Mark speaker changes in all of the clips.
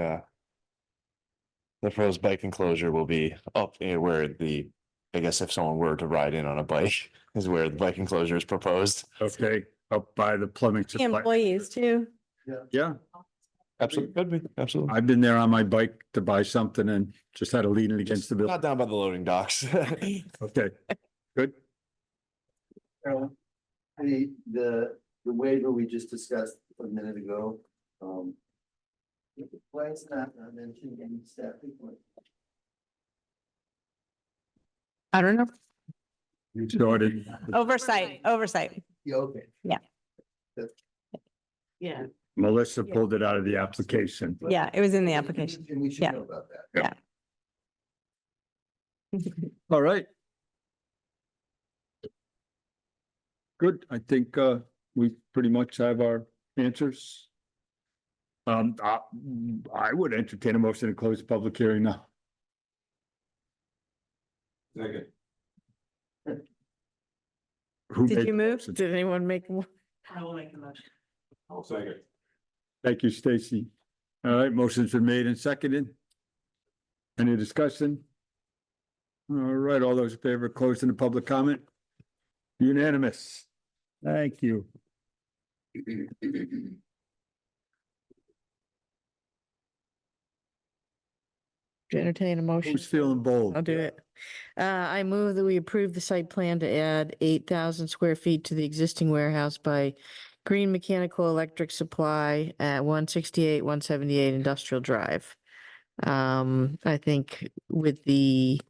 Speaker 1: uh. The proposed bike enclosure will be up eh, where the, I guess if someone were to ride in on a bike is where the bike enclosure is proposed.
Speaker 2: Okay, up by the plumbing
Speaker 3: The
Speaker 2: supply.
Speaker 3: Employees too.
Speaker 2: Yeah,
Speaker 1: Absolutely, could be, absolutely.
Speaker 2: I've been there on my bike to buy something and just had to lean it against the
Speaker 1: Not
Speaker 2: building.
Speaker 1: down by the loading docks.
Speaker 2: Okay, good.
Speaker 4: Carolyn, The, the, the waiver we just discussed a minute ago, um. Why is not mentioned in staff report?
Speaker 3: I don't know.
Speaker 2: You started.
Speaker 3: Oversight, oversight.
Speaker 4: Yeah, okay.
Speaker 5: Yeah,
Speaker 2: Melissa pulled it out of the application.
Speaker 3: Yeah, it was in the application.
Speaker 4: And we should
Speaker 3: Yeah.
Speaker 4: know about that.
Speaker 2: All right. Good, I think uh we pretty much have our answers. Um, I, I would entertain a motion to close the public hearing now.
Speaker 4: Second.
Speaker 2: Who
Speaker 3: Did
Speaker 2: made-
Speaker 3: you move?
Speaker 5: did anyone make? one? I will make the motion.
Speaker 4: I'll second.
Speaker 2: Thank you, Stacy. All right, motions are made and seconded. Any discussion? All right, all those in favor of closing the public comment? Unanimous. Thank you.
Speaker 5: To Entertain a motion.
Speaker 2: Who's feeling bold?
Speaker 5: I'll do it. Uh, I move that we approve the site plan to add eight thousand square feet to the existing warehouse by Green Mechanical Electric Supply at one sixty-eight, one seventy-eight Industrial Drive. Um, I think with the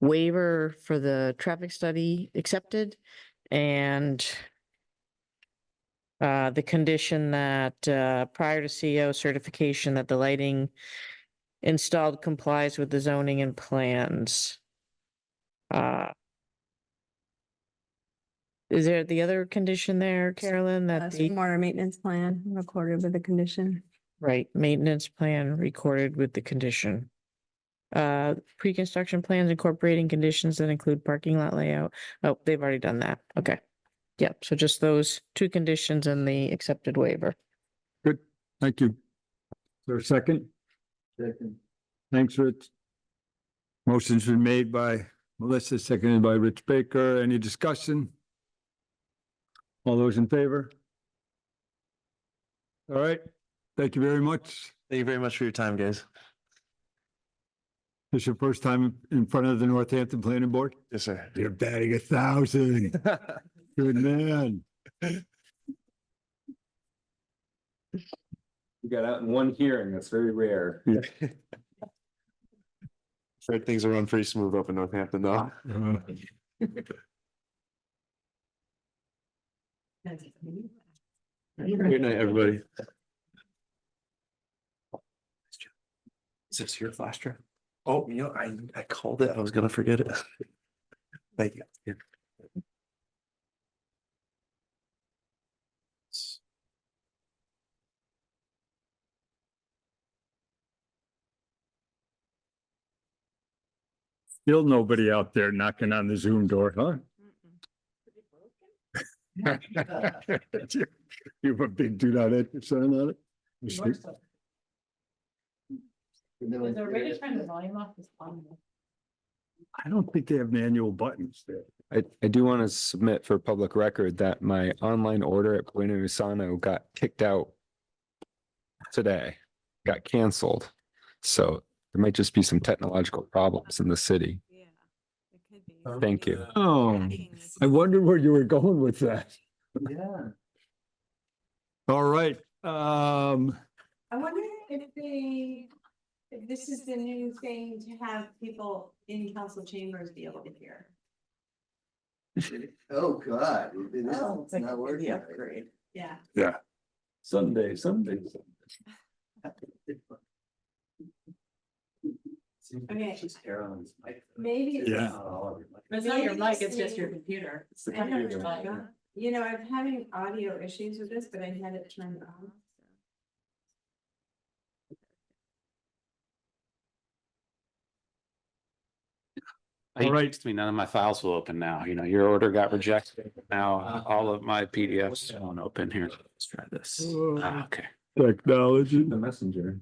Speaker 5: waiver for the traffic study accepted and uh, the condition that, uh, prior to CO certification that the lighting installed complies with the zoning and plans. Uh, Is there the other condition there, Carolyn, that the?
Speaker 3: Water maintenance plan recorded with the condition.
Speaker 5: Right, maintenance plan recorded with the condition. Uh, pre-construction plans incorporating conditions that include parking lot layout. Oh, they've already done that. Okay. Yep, so just those two conditions and the accepted waiver.
Speaker 2: Thank you. Is there a second?
Speaker 4: Second.
Speaker 2: Thanks, Rich. Motion's been made by Melissa, seconded by Rich Baker. Any discussion? All those in favor? All right, thank you very much.
Speaker 1: Thank you very much for your time, guys.
Speaker 2: This is your first time in front of the Northampton Planning Board?
Speaker 1: Yes, sir.
Speaker 2: You're batting a thousand. Good man.
Speaker 6: You got out in one hearing, that's very rare.
Speaker 1: Heard things are run pretty smooth up in Northampton though.
Speaker 2: Uh,
Speaker 1: Good night, everybody. Is this your flash drive? Oh, you know, I, I called it. I was gonna forget it. Thank you.
Speaker 2: Still nobody out there knocking on the Zoom door, huh? You have a big do not enter sign on it?
Speaker 4: Is
Speaker 5: volume off this one?
Speaker 2: I don't think they have manual buttons there.
Speaker 6: I, I do want to submit for public record that my online order at Bueno Usano got kicked out today, got canceled. So there might just be some technological problems in the city.
Speaker 3: Yeah, it could be. Um,
Speaker 6: Thank you.
Speaker 2: Oh, I wondered where you were going with that.
Speaker 4: Yeah.
Speaker 2: All right, um,
Speaker 7: I wonder if they, if this is the new thing to have people in council chambers be able to hear.
Speaker 4: Oh, God, it- it is, Oh, it's not working.
Speaker 7: Yeah.
Speaker 6: Sunday, Sunday.
Speaker 7: Okay. it's
Speaker 4: Carolyn's mic.
Speaker 7: Maybe. it's-
Speaker 2: Yeah.
Speaker 8: It's not your
Speaker 7: Maybe
Speaker 8: mic,
Speaker 7: the
Speaker 8: it's just your
Speaker 7: same-
Speaker 8: computer.
Speaker 7: I don't know. You know, I'm having audio issues with this, but I had it turned on.
Speaker 2: All
Speaker 9: All
Speaker 2: right.
Speaker 9: right, to me, none of my files will open now. You know, your order got rejected. Now all of my PDFs won't open here. Let's try this.
Speaker 2: Oh.
Speaker 9: Ah, Okay.
Speaker 2: technology.
Speaker 6: The messenger.